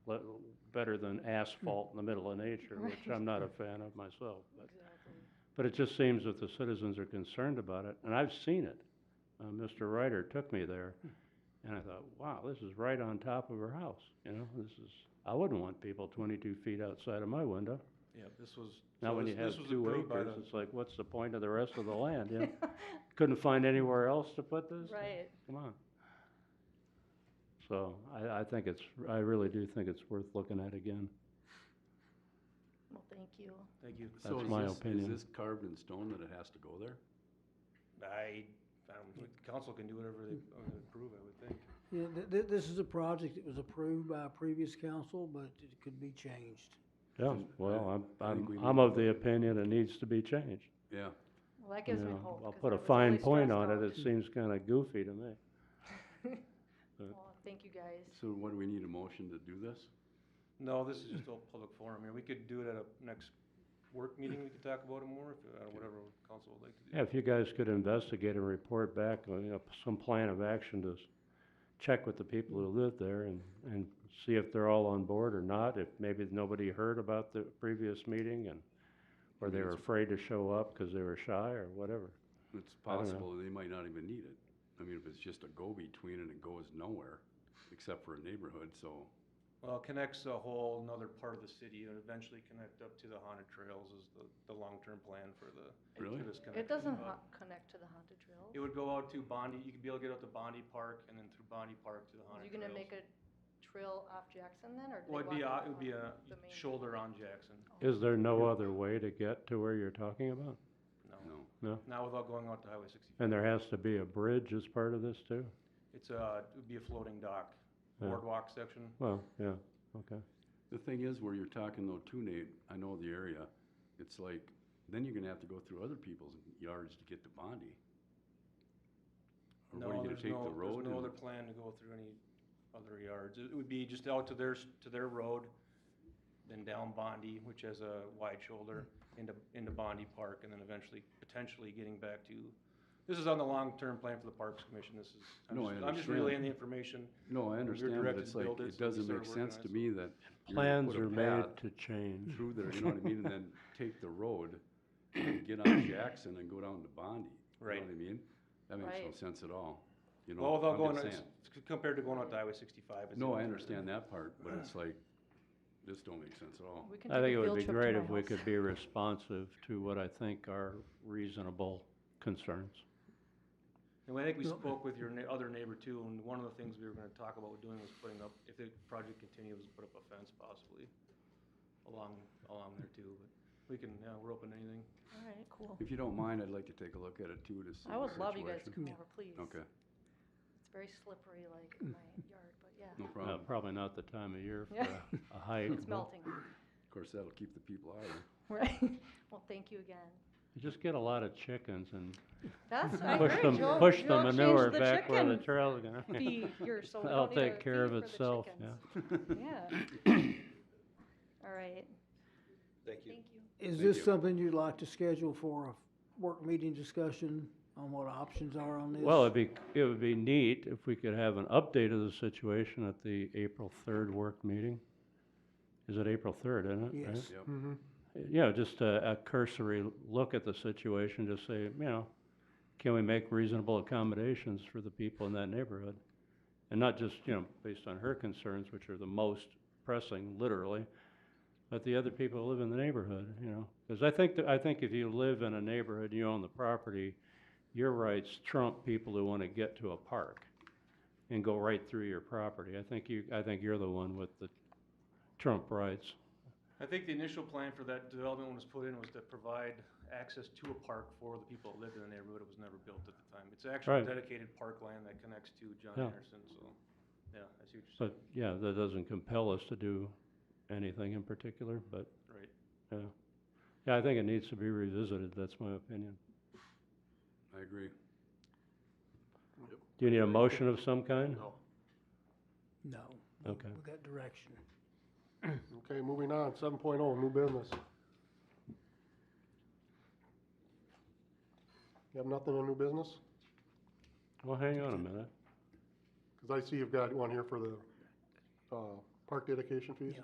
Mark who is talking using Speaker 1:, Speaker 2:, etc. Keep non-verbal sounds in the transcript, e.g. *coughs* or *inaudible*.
Speaker 1: better than asphalt in the middle of nature, which I'm not a fan of myself, but. But it just seems that the citizens are concerned about it, and I've seen it. Uh, Mr. Ryder took me there, and I thought, wow, this is right on top of her house, you know, this is, I wouldn't want people twenty-two feet outside of my window.
Speaker 2: Yeah, this was,
Speaker 1: Now,
Speaker 2: so
Speaker 1: when
Speaker 2: this
Speaker 1: you have
Speaker 2: this was
Speaker 1: two
Speaker 2: approved by
Speaker 1: acres,
Speaker 2: the,
Speaker 1: it's like, what's the point of the rest of the land, you know? Couldn't find anywhere else to put this?
Speaker 3: Right.
Speaker 1: Come on. So, I, I think it's, I really do think it's worth looking at again.
Speaker 3: Well, thank you.
Speaker 2: thank you.
Speaker 4: So
Speaker 1: That's
Speaker 4: is
Speaker 1: my
Speaker 4: this-
Speaker 1: opinion.
Speaker 4: Is this carved in stone that it has to go there?
Speaker 2: I, um, council can do whatever they uh, approve, I would think.
Speaker 5: *laughs* Yeah, th- th- this is a project that was approved by a previous council, but it could be changed.
Speaker 1: Yeah,
Speaker 4: Just-
Speaker 1: well,
Speaker 4: I-
Speaker 1: I'm,
Speaker 4: I think
Speaker 1: I'm,
Speaker 4: we need
Speaker 1: I'm
Speaker 4: to
Speaker 1: of
Speaker 4: look
Speaker 1: the
Speaker 4: at-
Speaker 1: opinion it needs to be changed.
Speaker 4: Yeah,
Speaker 3: Well, that gives
Speaker 1: you
Speaker 3: me
Speaker 1: know.
Speaker 3: hope.
Speaker 1: I'll
Speaker 3: 'cause
Speaker 1: put
Speaker 3: I
Speaker 1: a
Speaker 3: was
Speaker 1: fine
Speaker 3: really
Speaker 1: point
Speaker 3: stressed
Speaker 1: on it,
Speaker 3: out.
Speaker 1: it seems kinda goofy to me.
Speaker 3: Well, Thank you, guys.
Speaker 4: so what, do we need a motion to do this?
Speaker 2: No, this is just all public forum here. We could do it at a next work meeting, we could talk about it more, if, uh, whatever council would like to do.
Speaker 1: Yeah, if you guys could investigate and report back, uh, you know, p- some plan of action to s- check with the people who live there and, and see if they're all on board or not, if maybe nobody heard about the previous meeting and, or they were afraid to show up because they were shy or whatever.
Speaker 4: It's
Speaker 1: I don't know.
Speaker 4: possible they might not even need it. I mean, if it's just a go-between and it goes nowhere, except for a neighborhood, so,
Speaker 2: Well, it connects a whole nother part of the city and eventually connect up to the haunted trails is the, the long-term plan for the,
Speaker 4: Really?
Speaker 2: for this connection.
Speaker 3: It doesn't
Speaker 2: but
Speaker 3: ho- connect to the haunted trail.
Speaker 2: It would go out to Bondi, you could be able to get out to Bondi Park and then through Bondi Park to the
Speaker 3: Are you
Speaker 2: haunted
Speaker 3: gonna
Speaker 2: trails.
Speaker 3: make a trail off Jackson then, or? do they
Speaker 2: Well, it'd be,
Speaker 3: want
Speaker 2: a- it would be a
Speaker 3: the main-
Speaker 2: shoulder on Jackson,
Speaker 1: Is there no other way to get to where you're talking about?
Speaker 2: no,
Speaker 4: no.
Speaker 2: not without going out to Highway sixty.
Speaker 1: And there has to be a bridge as part of this too?
Speaker 2: It's a, it would be a floating dock,
Speaker 1: Yeah.
Speaker 2: boardwalk section.
Speaker 1: Well, yeah, okay.
Speaker 4: The thing is, where you're talking though too, Nate, I know the area, it's like, then you're gonna have to go through other people's yards to get to Bondi. Or what,
Speaker 2: No,
Speaker 4: are you gonna
Speaker 2: there's
Speaker 4: take
Speaker 2: no,
Speaker 4: the road?
Speaker 2: there's no
Speaker 4: and-
Speaker 2: other plan to go through any other yards. It would be just out to their, s- to their road, then down Bondi, which has a wide shoulder, into, into Bondi Park, and then eventually, potentially getting back to, this is on the long-term plan for the Parks Commission, this is, I'm just,
Speaker 4: No, I
Speaker 2: I'm just
Speaker 4: understand.
Speaker 2: relaying the information.
Speaker 4: No, I understand, but
Speaker 2: directed
Speaker 4: it's
Speaker 2: to
Speaker 4: like,
Speaker 2: build it,
Speaker 4: it
Speaker 2: so we
Speaker 4: doesn't
Speaker 2: started
Speaker 4: make
Speaker 2: working
Speaker 4: sense
Speaker 2: on
Speaker 4: to
Speaker 2: it.
Speaker 4: me that. you're gonna
Speaker 1: Plans
Speaker 4: put a
Speaker 1: are made
Speaker 4: path
Speaker 1: to change.
Speaker 3: Mm-hmm.
Speaker 4: Through there, you know what I mean, and
Speaker 2: *laughs*
Speaker 4: then take the road, and get on Jackson and go down to Bondi.
Speaker 2: Right.
Speaker 4: You know what I mean? That makes no
Speaker 3: Right.
Speaker 4: sense at all, you know?
Speaker 2: Well, without
Speaker 4: I'm just
Speaker 2: going, it's,
Speaker 4: saying.
Speaker 2: c- compared to going out to Highway sixty-five. it's
Speaker 4: No,
Speaker 2: a-
Speaker 4: I understand that part, but it's like, this don't make sense at all.
Speaker 3: We can
Speaker 1: I
Speaker 3: take a
Speaker 1: think it would
Speaker 3: field
Speaker 1: be
Speaker 3: trip to
Speaker 1: great
Speaker 3: my
Speaker 1: if we
Speaker 3: house.
Speaker 1: could be responsive to what I think are reasonable concerns.
Speaker 2: And I think we spoke with your ne- other neighbor too, and one of the things we were gonna talk about doing was putting up, if the project continues, put up a fence possibly along, along there too, but we can, yeah, we're open to anything.
Speaker 3: All right, cool.
Speaker 4: If you don't mind, I'd like to take a look at it too, to see
Speaker 3: I
Speaker 4: the
Speaker 3: would love you guys to come
Speaker 4: situation.
Speaker 3: over, please.
Speaker 4: Okay,
Speaker 3: It's very slippery, like
Speaker 1: Mm.
Speaker 3: in my yard, but yeah,
Speaker 4: no
Speaker 1: Uh,
Speaker 4: problem.
Speaker 1: Probably not the time of year for
Speaker 3: Yeah.
Speaker 1: a- a hike.
Speaker 3: it's melting.
Speaker 4: Of course, that'll keep the people out of it.
Speaker 3: Right. *laughs* Well, thank you again.
Speaker 1: You Just get a lot of chickens and
Speaker 3: That's, I
Speaker 1: push
Speaker 3: agree,
Speaker 1: them,
Speaker 3: Joe,
Speaker 1: push
Speaker 3: Joe
Speaker 1: the manure
Speaker 3: changed the
Speaker 1: back where the
Speaker 3: chicken
Speaker 1: trail is going.
Speaker 3: feed here, so we
Speaker 1: That'll
Speaker 3: don't need
Speaker 1: take
Speaker 3: a
Speaker 1: care of
Speaker 3: feed for the
Speaker 1: itself,
Speaker 3: chickens. Yeah. *coughs* All right. Thank you. Thank you.
Speaker 5: Is
Speaker 4: Thank you.
Speaker 5: this something you'd like to schedule for a work meeting discussion on what options are on this?
Speaker 1: Well, it'd be, it would be neat if we could have an update of the situation at the April third work meeting. Is it April third, isn't it? right?
Speaker 5: Yes.
Speaker 4: Yep.
Speaker 1: Yeah, just a, a cursory look at the situation, just say, you know, can we make reasonable accommodations for the people in that neighborhood? And not just, you know, based on her concerns, which are the most pressing, literally, but the other people who live in the neighborhood, you know? Because I think, that- I think if you live in a neighborhood, and you own the property, your rights trump people who want to get to a park and go right through your property. I think you, I think you're the one with the trump rights.
Speaker 2: I think the initial plan for that development when it was put in was to provide access to a park for the people that lived in the neighborhood. It was never built at the time. It's actually
Speaker 1: Right.
Speaker 2: dedicated parkland that connects to John
Speaker 1: Yeah.
Speaker 2: Anderson, so, yeah, I see what you're
Speaker 1: But, yeah, that doesn't compel us to do anything in particular, but,
Speaker 2: saying, right?
Speaker 1: yeah. Yeah, I think it needs to be revisited, that's my opinion.
Speaker 4: *laughs* I agree.
Speaker 1: Do you need a motion of some kind?
Speaker 3: Oh,
Speaker 6: No.
Speaker 5: No.
Speaker 1: Okay.
Speaker 5: We got direction.
Speaker 6: Okay, moving on, seven oh, new business. You have nothing on new business?
Speaker 1: Well, hang on a minute.
Speaker 6: Because I see you've got one here for the, uh, park dedication fees.